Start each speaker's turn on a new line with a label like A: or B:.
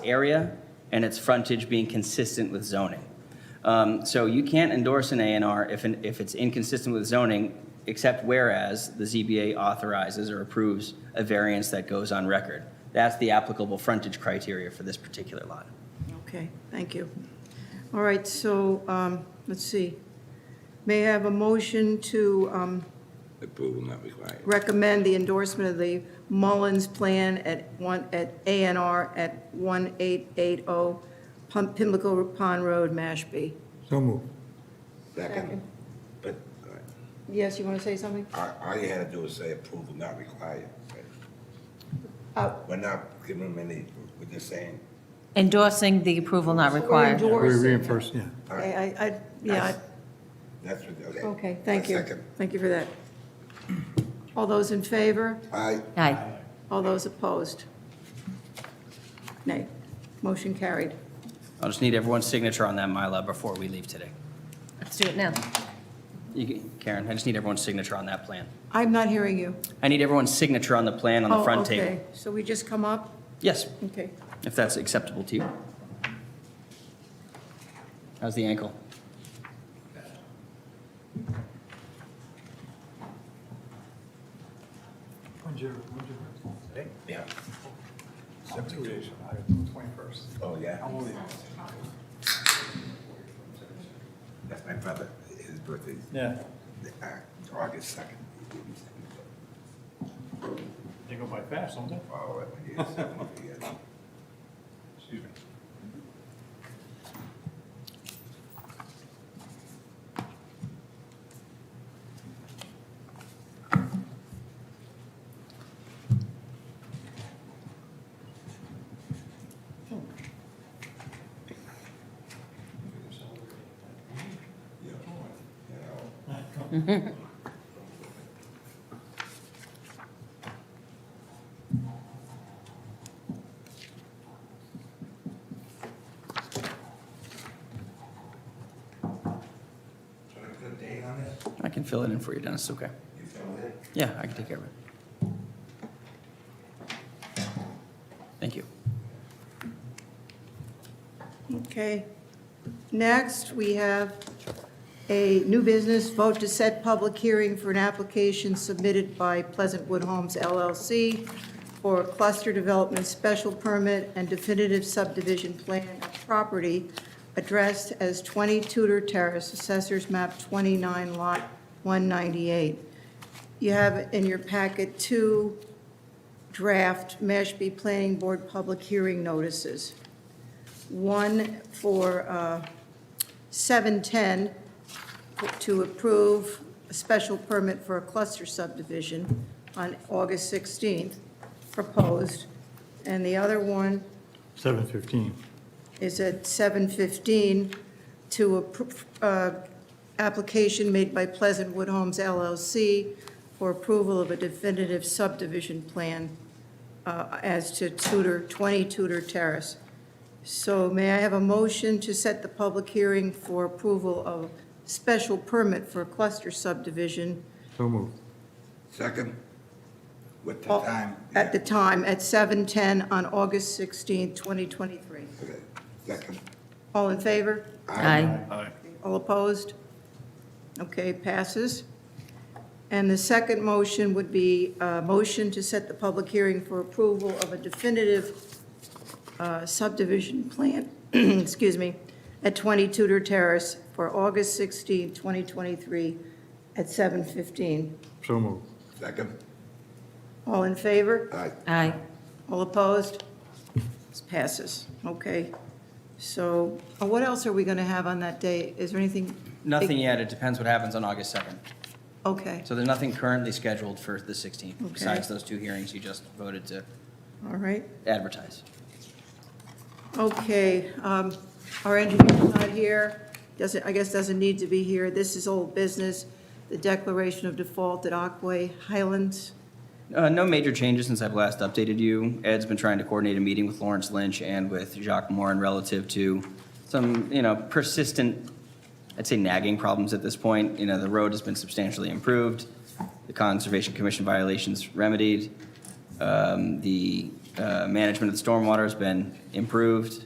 A: area and its frontage being consistent with zoning. Um, So you can't endorse an A and R if, an- if it's inconsistent with zoning, except whereas the ZBA authorizes or approves a variance that goes on record. That's the applicable frontage criteria for this particular lot.
B: Okay, thank you. All right, so, um, let's see. May I have a motion to um,
C: Approval not required.
B: recommend the endorsement of the Mullins Plan at one, at A and R at 1880 Pum- oh Pimlico Pond Road, Mashpee?
D: So moved.
C: Second. But all right.
B: Yes, you want to say something?
C: all, all you had to do was say approval not required. right?
B: Uh,
C: We're not giving them any, we're just saying,
E: Endorsing the approval not required.
D: We
B: Endorse.
D: reinforce, yeah.
C: all
B: I,
C: right,
B: I, I- yeah,
C: that's what, okay.
B: I- okay, thank you.
C: Second.
B: Thank you for that. All those in favor?
C: Aye,
E: Aye.
B: All those opposed? Nay. Motion carried.
A: I'll just need everyone's signature on that MyLab before we leave today.
E: Let's do it now.
A: You can- Karen, I just need everyone's signature on that plan.
B: I'm not hearing you.
A: I need everyone's signature on the plan on the
B: Oh,
A: front
B: okay.
A: table.
B: So we just come up?
A: Yes,
B: Okay.
A: if that's acceptable to you. How's the ankle?
C: yeah,
D: Twenty-first.
C: oh, yeah. That's my brother, his birthday, is,
D: Yeah,
C: uh, August second.
D: they go by fast, don't they?
C: Oh, yes, I'm gonna forget.
D: Excuse me.
C: Should I put a date on it?
A: I can fill it in for you, Dennis, it's okay.
C: You found it?
A: Yeah, I can take care of it. Thank you.
B: Okay. Next, we have a new business vote to set public hearing for an application submitted by Pleasantwood Homes LLC for cluster development special permit and definitive subdivision plan of property addressed as 20 Tudor Terrace, Assessors Map 29, Lot 198. You have in your packet two draft Mashpee Planning Board public hearing notices one for uh, 710 to approve a special permit for a cluster subdivision on August 16th, proposed, and the other one
D: Seven fifteen.
B: is at 7:15 to a, uh, application made by Pleasantwood Homes LLC for approval of a definitive subdivision plan uh, as to Tudor, 20 Tudor Terrace. So may I have a motion to set the public hearing for approval of special permit for cluster subdivision
D: So moved.
C: Second, with the time.
B: Oh, at the time, at 7:10 on August 16th, 2023?
C: Okay, Second.
B: All in favor?
E: Aye.
B: All opposed? Okay, passes. And the second motion would be a motion to set the public hearing for approval of a definitive uh, subdivision plan, excuse me, at 20 Tudor Terrace for August 16, 2023, at 7:15.
D: So moved.
C: Second,
B: All in favor?
C: aye.
E: Aye.
B: All opposed? This passes. Okay. So uh, what else are we going to have on that day? Is there anything?
A: Nothing yet, it depends what happens on August 2nd.
B: Okay,
A: So there's nothing currently scheduled for the 16th,
B: Okay.
A: besides those two hearings you just voted to
B: all right.
A: advertise.
B: Okay, um, our engineer's not here, doesn't, I guess doesn't need to be here. This is old business, the declaration of default at Aquay Highlands.
A: Uh, No major changes since I've last updated you. Ed's been trying to coordinate a meeting with Lawrence Lynch and with Jacques Morin relative to some, you know, persistent, I'd say nagging problems at this point. You know, the road has been substantially improved, the Conservation Commission violations remedied, um, the uh, management of stormwater has been improved.